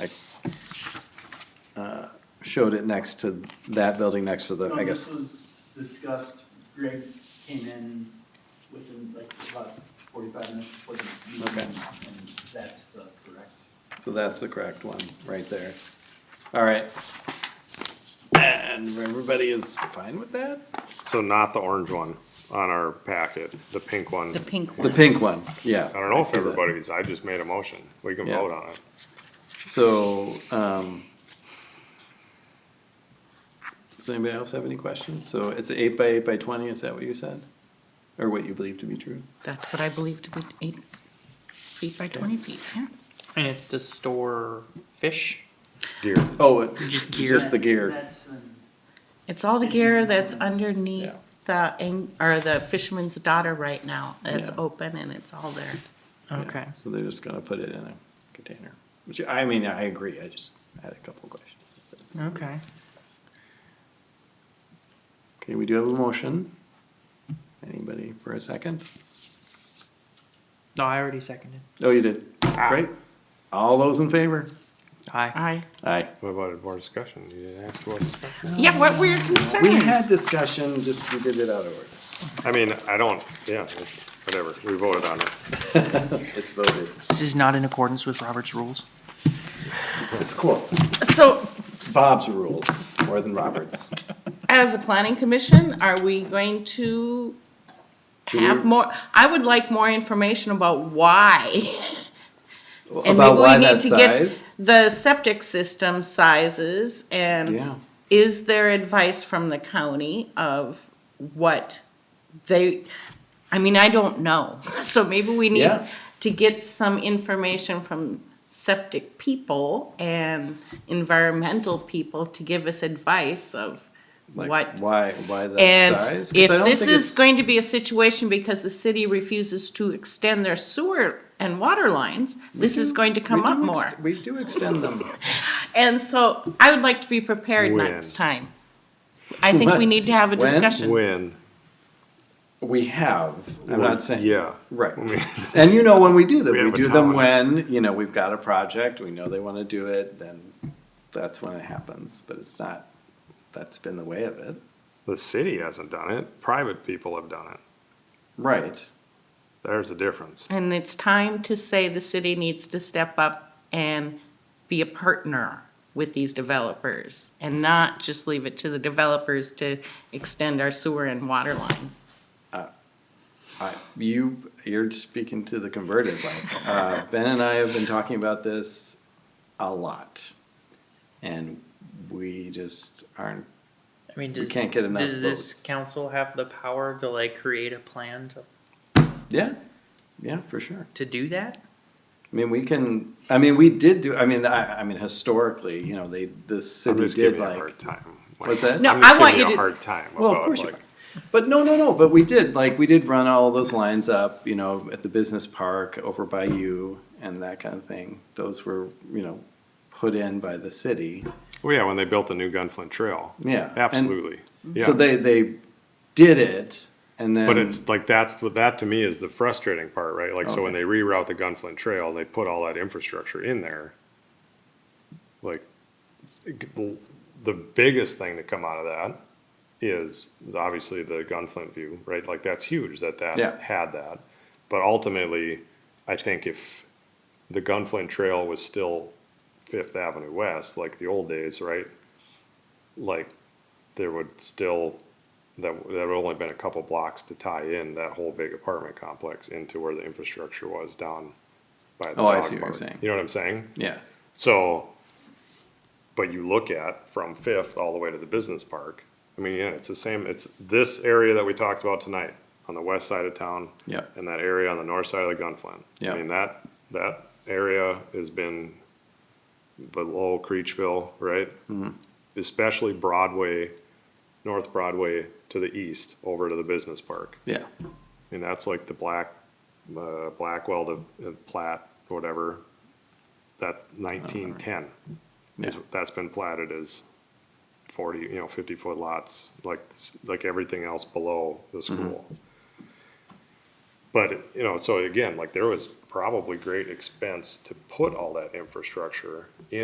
I uh, showed it next to that building next to the, No, I this guess, was discussed, Greg came in within like about forty-five minutes before the meeting. Okay. And that's the correct. so that's the correct one, right there. All right. And everybody is fine with that? So not the orange one on our packet, the pink one. The pink The one. pink one, yeah. I don't know if see that. everybody's, I just made a motion. We can Yeah. vote on it. So, um, does anybody else have any questions? So it's eight by eight by twenty, is that what you said? Or what you believe to be true? That's what I believe to be eight feet by twenty feet, yeah. And it's to store fish. Gear. Oh, it- Just gear. just the gear, That's, um, It's all the gear that's underneath Yeah. the, ang- or the fisherman's daughter right now. It's Yeah. open and it's all there. Okay. so they're just gonna put it in a container, which, I mean, I agree, I just had a couple of questions. That's it. Okay. Okay, we do have a motion. Anybody for a second? No, I already seconded. Oh, you did, Ah. great. All those in favor? Aye. I, Aye. What about more discussion? You didn't ask for discussion? yeah, what were your concerns? We had discussion, just we did it out of order. I mean, I don't, yeah, whatever, we voted on it. It's voted. This is not in accordance with Robert's rules. It's close. So Bob's rules more than Robert's. as a planning commission, are we going to have more, I would like more information about why. And maybe About why we need that to get size? the septic system sizes Yeah. and is there advice from the county of what they, I mean, I don't know. So maybe we need Yeah. to get some information from septic people and environmental people to give us advice of Like what. Why? Why that And size? 'Cause if I don't this think is it's- going to be a situation because the city refuses to extend their sewer and water lines, this is going to come we up do more. ex- we do extend them. And so I would like to be prepared When? next time. I think we need to have a When? discussion. When? We have. I'm When- not saying. Yeah. Right. I mean, And you know when we do them, We we, have a do them timeline. when you know we've got a project. We know they want to do it. Then that's when it happens. But it's not. That's been the way of it. The city hasn't done it, private people have done it. Right. There's a difference. And it's time to say the city needs to step up and be a partner with these developers and not just leave it to the developers to extend our sewer and water lines. I, you you're speaking to the converted. Like, uh, ben and I have been talking about this a lot, and we just aren't. I mean, does, can't get enough does votes. this council have the power to like create a plan to, Yeah, yeah, for sure. to do that? I mean, we can. I mean, we did do. I mean, I, I mean, historically, you know, they the I'm city just did giving you a like. hard time. What's that? No, I'm just I want giving you a to- Hard time Well, of about, course you like, are. But no, no, no. But we did like we did run all those lines up, you know, at the business park over by you and that kind of thing. Those were, you know, put in by the city. Well, oh, yeah, when they built the new Gunflint Trail. Yeah, and- Absolutely. So Yeah. they they did it, and then But it's like, that's what, that to me is the frustrating part, right? Like, so when they reroute the Gunflint Trail, they put all that infrastructure in there. Like, the the biggest thing to come out of that is obviously the Gunflint view, right? Like, that's huge that Yeah. that had that. But ultimately, I think if the Gunflint Trail was still Fifth Avenue West, like the old days, right? Like, there would still, that, there would only been a couple blocks to tie in that whole big apartment complex into where the infrastructure was down by the Oh, I dog see what you're park. saying. You know what I'm saying? yeah, So, but you look at from Fifth all the way to the business park. I mean, yeah, it's the same, it's this area that we talked about tonight on the west side of town. Yeah. And that area on the north side of the Gunflint. Yeah. I mean, that, that area has been below Creechville, right? Mm-hmm. Especially Broadway, North Broadway to the east, over to the business park. yeah, And that's like the black, uh, Blackwell to uh, Platt, whatever, that nineteen ten. yeah. That's been platted as forty, you know, fifty foot lots, like, s- like everything else below the school. But, you know, so again, like there was probably great expense to put all that infrastructure in.